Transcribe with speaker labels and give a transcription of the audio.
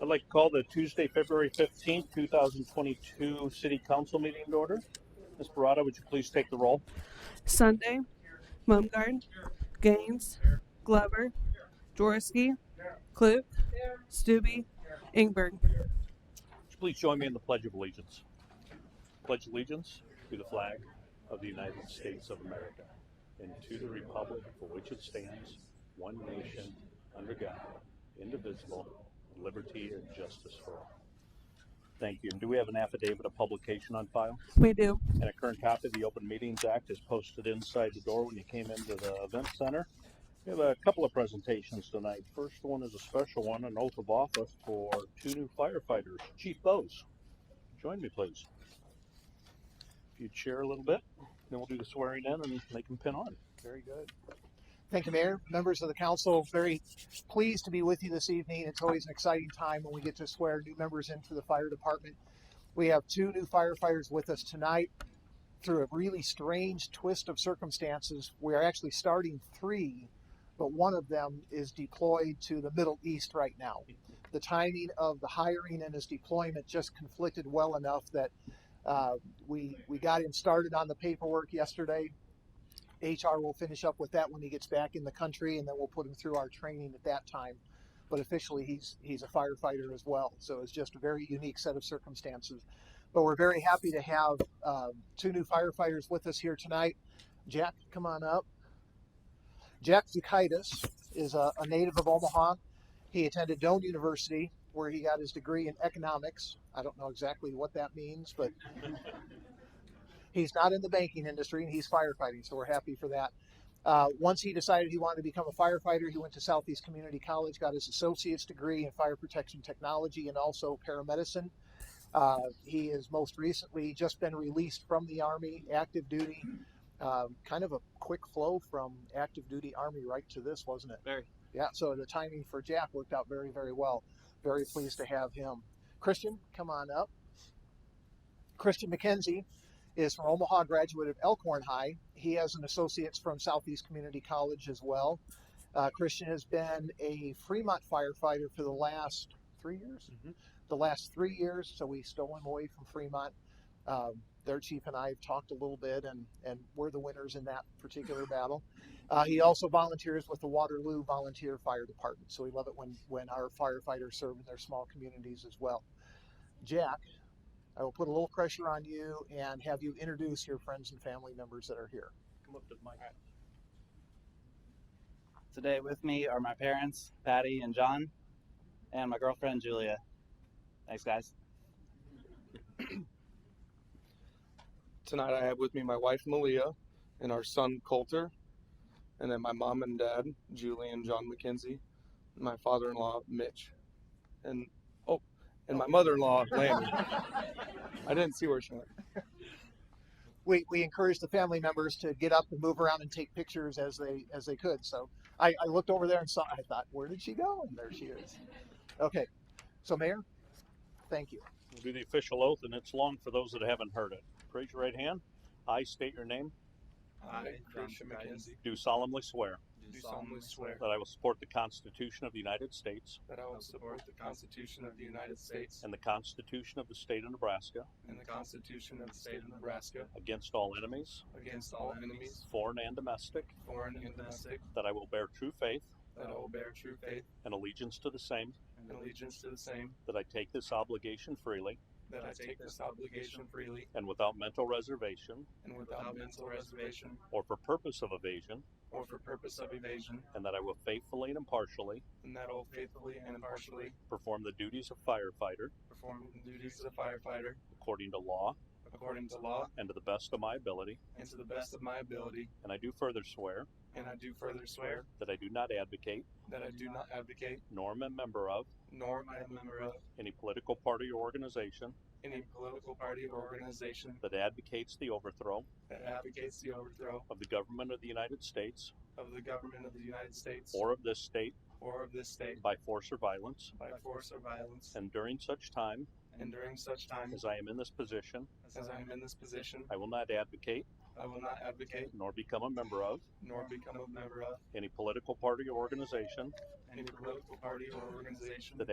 Speaker 1: I'd like to call the Tuesday, February 15th, 2022 City Council meeting to order. Ms. Barada, would you please take the roll?
Speaker 2: Sunday, Mumgarden, Gaines, Glover, Jaworski, Klug, Stubbe, Ingberg.
Speaker 1: Would you please join me in the Pledge of Allegiance? Pledge allegiance to the flag of the United States of America and to the republic for which it stands, one nation, under God, indivisible, with liberty and justice for all. Thank you. And do we have an affidavit of publication on file?
Speaker 2: We do.
Speaker 1: And a current copy of the Open Meetings Act is posted inside the door when you came into the event center. We have a couple of presentations tonight. First one is a special one, an oath of office for two new firefighters. Chief Bose, join me please. If you chair a little bit, then we'll do the swearing in and make them pin on. Very good.
Speaker 3: Thank you, Mayor. Members of the council, very pleased to be with you this evening. It's always an exciting time when we get to swear new members into the fire department. We have two new firefighters with us tonight. Through a really strange twist of circumstances, we are actually starting three, but one of them is deployed to the Middle East right now. The timing of the hiring and his deployment just conflicted well enough that uh, we we got him started on the paperwork yesterday. HR will finish up with that when he gets back in the country, and then we'll put him through our training at that time. But officially, he's he's a firefighter as well. So it's just a very unique set of circumstances. But we're very happy to have um, two new firefighters with us here tonight. Jack, come on up. Jack Zukaitis is a, a native of Omaha. He attended Doane University, where he got his degree in economics. I don't know exactly what that means, but he's not in the banking industry and he's firefighting so we're happy for that uh, once he decided he wanted to become a firefighter he went to southeast community college got his associate's degree in fire protection technology and also paramedicine uh, he is most recently just been released from the army active duty um, kind of a quick flow from active duty army right to this wasn't it
Speaker 4: Very.
Speaker 3: yeah so the timing for jack worked out very very well very pleased to have him christian come on up christian mckenzie is from Omaha, graduate of Elkhorn High. He has an associate's from Southeast Community College as well. Uh, Christian has been a Fremont firefighter for the last three years.
Speaker 1: Mhm.
Speaker 3: The last three years, so we stole him away from Fremont. Um, their chief and I have talked a little bit, and and we're the winners in that particular battle. Uh, he also volunteers with the Waterloo Volunteer Fire Department, so we love it when when our firefighters serve in their small communities as well. Jack, I will put a little pressure on you and have you introduce your friends and family members that are here.
Speaker 1: Come up to the mic.
Speaker 4: Today with me are my parents, Patty and John, and my girlfriend, Julia. Thanks, guys.
Speaker 5: Tonight I have with me my wife Malia and our son Coulter, and then my mom and dad, Julie and John McKenzie, and my father-in-law Mitch, and oh, and my mother-in-law Lanny. I didn't see where she went.
Speaker 3: We, we encouraged the family members to get up and move around and take pictures as they as they could. So I, I looked over there and saw. I thought, where did she go? And there she is. Okay, so Mayor, thank you.
Speaker 1: We'll do the official oath and it's long for those that haven't heard it. Raise your right hand. I state your name.
Speaker 5: I,
Speaker 6: Christian McKenzie,
Speaker 1: Do solemnly swear
Speaker 6: do solemnly swear
Speaker 1: that I will support the Constitution of the United States
Speaker 5: that I will support the Constitution of the United States
Speaker 1: and the Constitution of the State of Nebraska
Speaker 5: and the Constitution of the State of Nebraska
Speaker 1: against all enemies,
Speaker 5: against all enemies,
Speaker 1: foreign and domestic,
Speaker 5: foreign and domestic,
Speaker 1: that I will bear true faith
Speaker 5: that I will bear true faith
Speaker 1: and allegiance to the same,
Speaker 5: and allegiance to the same,
Speaker 1: that I take this obligation freely
Speaker 5: that I take this obligation freely
Speaker 1: and without mental reservation
Speaker 5: and without mental reservation
Speaker 1: or for purpose of evasion,
Speaker 5: or for purpose of evasion,
Speaker 1: and that I will faithfully and impartially
Speaker 5: and that I will faithfully and impartially
Speaker 1: perform the duties of firefighter
Speaker 5: perform the duties of firefighter
Speaker 1: according to law
Speaker 5: according to law
Speaker 1: and to the best of my ability.
Speaker 5: and to the best of my ability.
Speaker 1: And I do further swear
Speaker 5: And I do further swear
Speaker 1: that I do not advocate
Speaker 5: that I do not advocate,
Speaker 1: nor am a member of
Speaker 5: nor am I a member of,
Speaker 1: any political party or organization
Speaker 5: any political party or organization
Speaker 1: that advocates the overthrow
Speaker 5: that advocates the overthrow
Speaker 1: of the government of the United States
Speaker 5: of the government of the United States
Speaker 1: or of this state
Speaker 5: or of this state
Speaker 1: by force or violence.
Speaker 5: by force or violence.
Speaker 1: And during such time
Speaker 5: And during such time
Speaker 1: as I am in this position,
Speaker 5: as I am in this position,
Speaker 1: I will not advocate
Speaker 5: I will not advocate,
Speaker 1: nor become a member of
Speaker 5: nor become a member of,
Speaker 1: any political party or organization
Speaker 5: any political party or organization
Speaker 1: That